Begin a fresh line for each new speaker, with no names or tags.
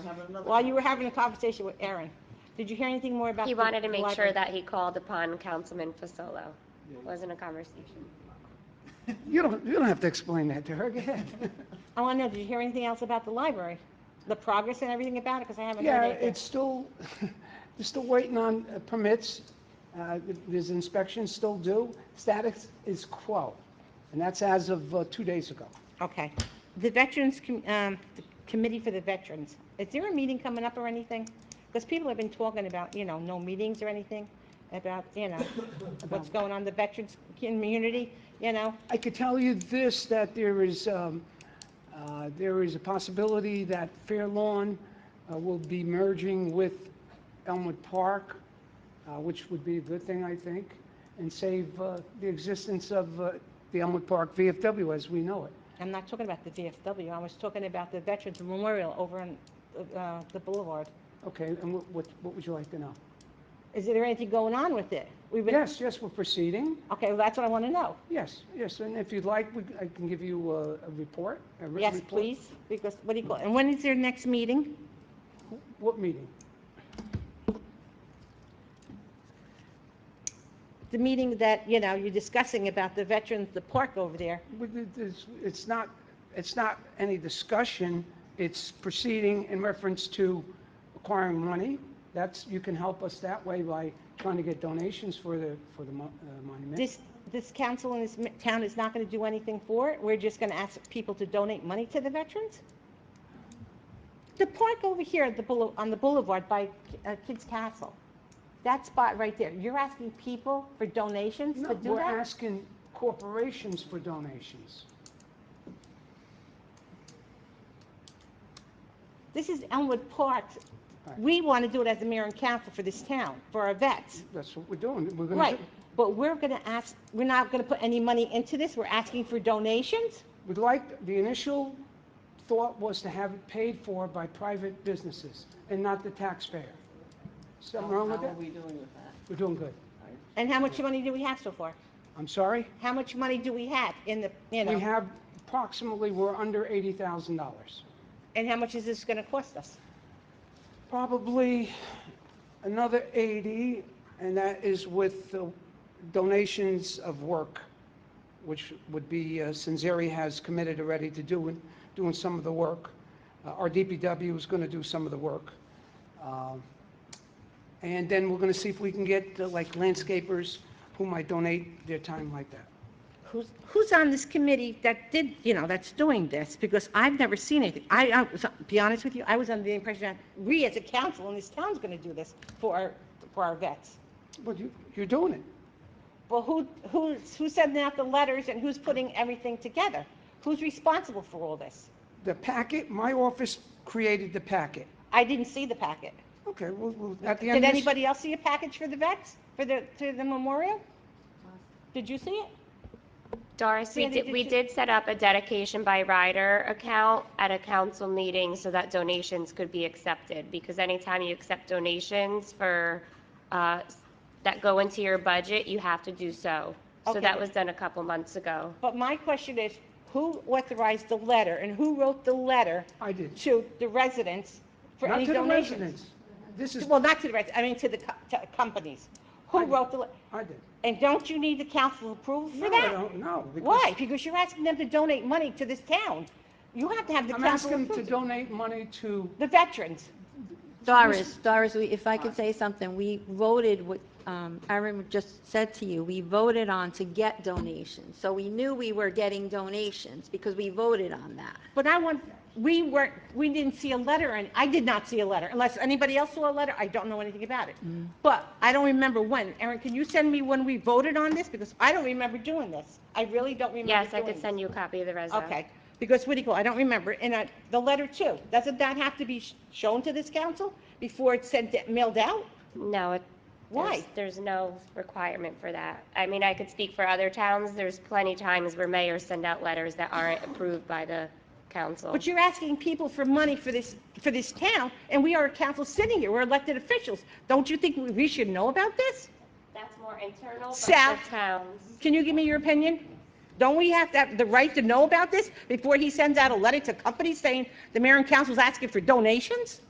another.
While you were having a conversation with Aaron, did you hear anything more about?
He
the-
wanted
the
to make sure
library?
that he called upon Councilman Fasolo. Wasn't a conversation.
You don't, you don't have to explain that to her, go ahead.
I want to know, did you hear anything else about the library? The progress and everything about it, because I haven't heard
Yeah,
anything.
it's still, they're still waiting on uh, permits, Uh, there's inspections still due, status is quo, and that's as of uh, two days ago.
Okay. The Veterans, Com- um, the Committee for the Veterans, is there a meeting coming up or anything? Because people have been talking about, you know, no meetings or anything, about, you know, what's going on in the veterans community, you know?
I could tell you this, that there is, um, uh, there is a possibility that Fair Lawn uh, will be merging with Elmwood Park, uh, which would be a good thing, I think, and save uh, the existence of uh, the Elmwood Park VFW as we know it.
I'm not talking about the VFW, I was talking about the Veterans Memorial over on uh, the Boulevard.
Okay, and what- what, what would you like to know?
Is there anything going on with it? We've been-
Yes, yes, we're proceeding,
Okay, well, that's what I want to know.
yes, yes, and if you'd like, we- I can give you a a report, a written
Yes,
report.
please, because, what do you call, and when is their next meeting?
What meeting?
The meeting that, you know, you're discussing about the veterans, the park over there.
But it- It's it's not, it's not any discussion, it's proceeding in reference to acquiring money. That's, you can help us that way by trying to get donations for the, for the mo- uh, monument.
This, this council in this mi- town is not going to do anything for it? We're just going to ask people to donate money to the veterans? The park over here at the, boule- on the boulevard by uh, Kids Castle, that spot right there, you're asking people for donations
No,
to do
We're
that?
asking corporations for donations.
This is Elmwood Park.
Right.
We want to do it as the mayor and council for this town, for our vets.
That's what we're doing, we're going to.
Right, but we're going to ask, we're not going to put any money into this, we're asking for donations?
We'd like, the initial thought was to have it paid for by private businesses and not the taxpayer. Something wrong with
How are
that?
we doing with that?
We're doing good.
And how much money do we have so far?
I'm sorry?
How much money do we have in the, you
We
know,
have approximately, we're under $80,000.
and how much is this going to cost us?
Probably another 80, and that is with the donations of work, which would be, uh, Sinceri has committed already to doing, doing some of the work. Uh, Our DPW is going to do some of the work. Um, And then we're going to see if we can get uh, like landscapers who might donate their time like that.
Who's, who's on this committee that did, you know, that's doing this? Because I've never seen anything. I, I, was- be honest with you, I was under the impression that we as a council in this town's going to do this for, our for our vets.
But you, you're doing it.
Well, who, who's, who's sending out the letters and who's putting everything together? Who's responsible for all this?
The packet, my office created the packet.
I didn't see the packet.
Okay, well, well, at the end
Did
of this,
anybody else see a package for the vets, for the, to the memorial? Did you see it?
Doris, we
Sandy,
did, we
did
did set up a dedication by rider account at a council meeting so that donations could be accepted. Because anytime you accept donations for, uh, that go into your budget, you have to do so. So
Okay.
that was done a couple months ago.
But my question is, who authorized the letter and who wrote the letter
I did.
to the residents for
Not
any
to the
donations?
residents. This is,
Well, not to the residents, I mean to the co- to companies.
I
Who
did.
wrote the, le-
I did.
and don't you need the council approval for
No, I
that?
don't know. because
Why? Because you're asking them to donate money to this town. You have to have the
I'm
council
asking to
approval.
donate money to,
The veterans.
Doris, Doris, we- if I could say something, we voted what um, Aaron just said to you, we voted on to get donations. So we knew we were getting donations because we voted on that.
But I want, we weren't, we didn't see a letter, and I did not see a letter, unless anybody else saw a letter, I don't know anything about it. But I don't remember when. Erin, can you send me when we voted on this? Because I don't remember doing this. I really don't remember
Yes, I could
doing
send
this.
you a copy of the resume.
Okay, because what do you call, I don't remember, and I, the letter too, doesn't that have to be sh- shown to this council before it's sent, mailed out?
No, it.
Why?
there's- There's no requirement for that. I mean, I could speak for other towns. There's plenty times where mayors send out letters that aren't approved by the council.
But you're asking people for money for this, for this town, and we are a council sitting here, we're elected officials. Don't you think we- we should know about this?
That's more internal, but
Sal-
for towns.
Can you give me your opinion? Don't we have to have the right to know about this before he sends out a letter to companies saying the mayor and council's asking for donations?